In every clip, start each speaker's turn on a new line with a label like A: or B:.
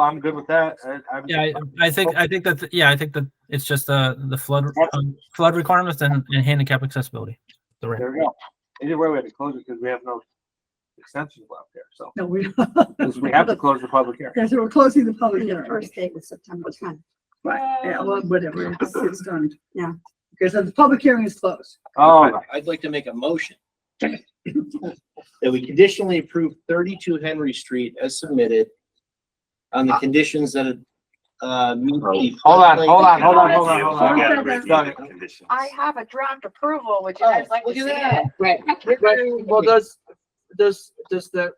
A: I'm good with that. I, I'm,
B: Yeah, I, I think, I think that, yeah, I think that it's just the, the flood, um, flood requirements and, and handicap accessibility. The ramp.
A: there we go. Either way, we had to close it because we have no extensions left there. So
C: No, we,
A: 'cause we have to close the public hearing.
C: that's, we're closing the public
D: The
C: hearing.
D: first date was September tenth.
C: Right, yeah, well, whatever, it's, it's done.
D: Yeah.
C: Because the public hearing is closed.
A: All right.
E: I'd like to make a motion that we conditionally approve thirty-two Henry Street as submitted on the conditions that, uh, meet the.
A: Hold on, hold on, hold on, hold on, hold
F: We
A: on.
F: gotta review
A: Got
F: the
A: it.
F: conditions.
G: I have a draft approval, would you
E: Oh,
G: guys like to
E: look
G: see
E: at that.
G: it?
H: Right, right, well, does, does, does the,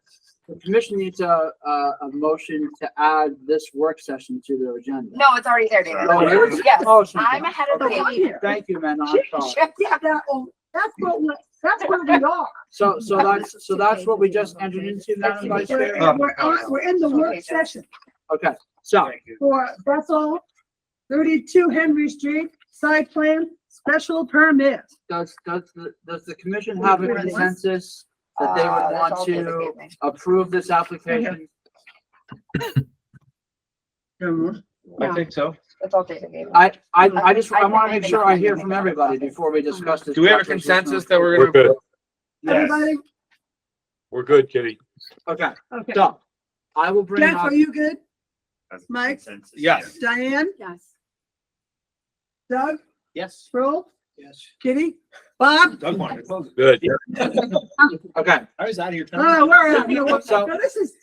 H: the commission needs a, a, a motion to add this work session to their agenda?
G: No, it's already there,
F: Oh, it
G: David. Yes,
H: Oh, it's-
G: I'm ahead of the
C: Okay.
G: game.
C: here.
H: Thank you, man, I'm sorry.
C: Yeah, that, oh, that's what, we- that's where we are.
H: So, so that's, so that's what we just entered into, Madam Vice Chair?
C: We're, we're, on- we're in the work session
H: Okay, so,
C: for Bethel, thirty-two Henry Street, side plan, special permit.
H: does, does, the does the commission have a consensus that they would
G: Uh, that's all
H: want
G: David
H: to
G: gave me.
H: approve this application?
A: I think so.
G: That's all David gave me.
H: I, I, I just, I wanna make sure I hear from everybody before we discuss this.
I: Do we have a
H: application.
I: consensus that we're
J: We're
I: gonna,
J: good.
C: Everybody,
J: We're good, Kitty.
H: Okay,
C: okay.
H: so, I will bring
C: Jeff,
H: up.
C: are you good?
F: As a
C: Mike?
F: consensus,
I: Yes.
C: Diane,
D: Yes.
C: Doug,
E: Yes.
C: Roll,
E: Yes.
C: Kitty, Bob?
F: Doug wanted to close it.
J: Good.
H: Okay,
E: I was out of your time.
A: Ah.
C: Oh, we're, out. no, we're-
H: So-
C: no, this is,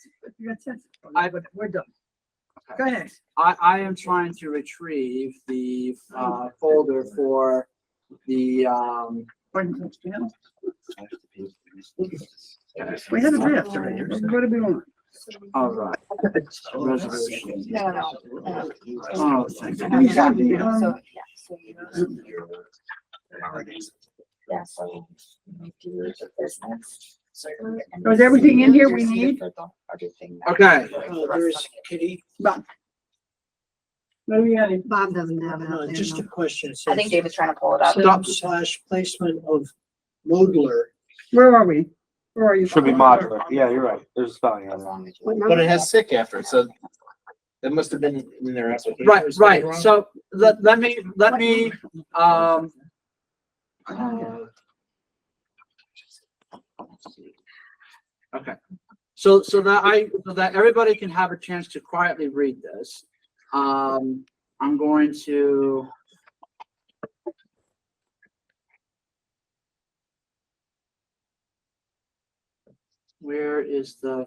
C: I, we're done. Go ahead.
H: I, I am trying to retrieve the, uh, folder for the, um,
C: We have a draft already. What do we want?
H: all right.
E: Oh,
H: Resolution.
G: No, no, no.
H: Oh,
G: I
H: thank
G: have a
H: you.
G: draft, so, yeah, so you-
A: Oh,
G: yeah, so you do your business, so you're- and
C: Was Oh, everything in here
G: you're
C: we
G: seated
C: need?
G: for the- everything that-
H: Okay,
E: Uh, There's Kitty.
C: What do we got?
D: Bob doesn't have it
E: Uh,
D: out there.
E: Just a
D: no.
E: question.
G: I think David's trying to pull it up.
E: Stop
H: Stop.
E: slash placement of modular,
C: Where are we? Where are you?
A: Should be modular. Yeah, you're right. There's a spelling
G: As
A: error.
G: long as you-
D: What
E: but
D: number?
E: it has sick after it, so that must have been in their application.
H: right,
E: Is that
H: right,
E: wrong?
H: so let, let me, let me, um, uh, okay, so, so that I, so that everybody can have a chance to quietly read this. Um, I'm going to. Where is the?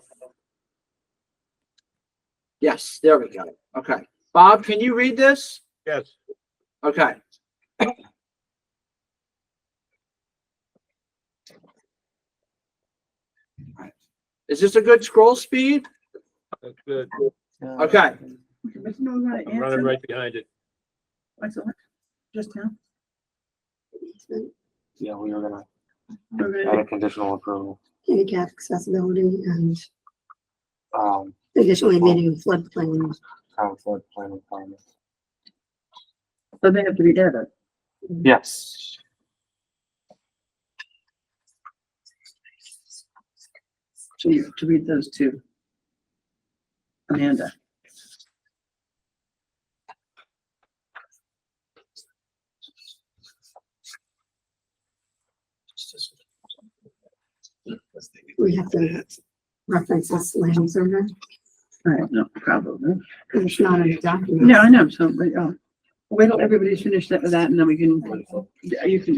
H: Yes, there we go. Okay. Bob, can you read this?
J: Yes.
H: Okay. Is this a good scroll speed?
J: That's good.
H: Okay,
C: There's no right
J: I'm running
C: answer.
J: right behind it.
C: I saw it Just now.
A: Yeah, we were gonna add a
C: Okay.
A: conditional approval.
D: Handicap accessibility and
A: Um,
D: additionally meeting floodplain.
A: town flood plan requirements.
C: So they have to be added.
A: Yes.
C: So you have to read those two. Amanda.
D: We have to reference this land survey.
C: I have no problem.
D: It's not in the document.
C: No, I know, so, but, oh, wait till everybody's finished that with that and then we can, you can, yeah, you can,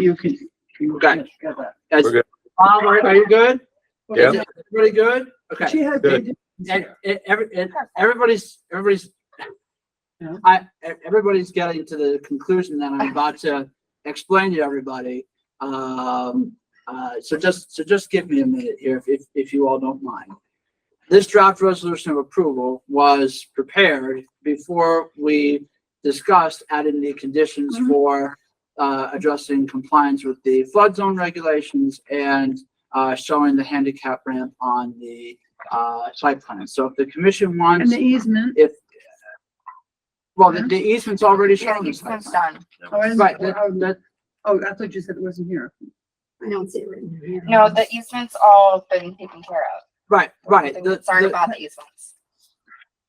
C: you can. you can- got that.
H: that's-
J: We're good.
H: Bob, are, are you good?
J: Yeah.
H: Is Everybody good? Okay.
C: She has.
J: Good.
H: And, and every, and everybody's, everybody's.
C: Yeah.
H: I, e- everybody's getting to the conclusion that I'm about to explain to everybody. Um, uh, so just, so just give me a minute here if, if, if you all don't mind. This draft resolution of approval was prepared before we discussed adding the conditions
C: Mhm.
H: for uh, addressing compliance with the flood zone regulations and uh, showing the handicap ramp on the uh, site plan. So if the commission
C: And
H: wants,
C: the easement.
H: well, the the easement's already
G: Yeah,
H: shown. in the
G: he's
H: site
G: since
H: plan.
G: done.
C: Oh, I-
H: Right,
C: oh,
H: that-
C: Oh, I thought you said it wasn't here.
D: I don't see it written here.
G: No, the easement's all been taken care of.
H: Right, right. The-
G: Sorry
H: the-
G: about the easements.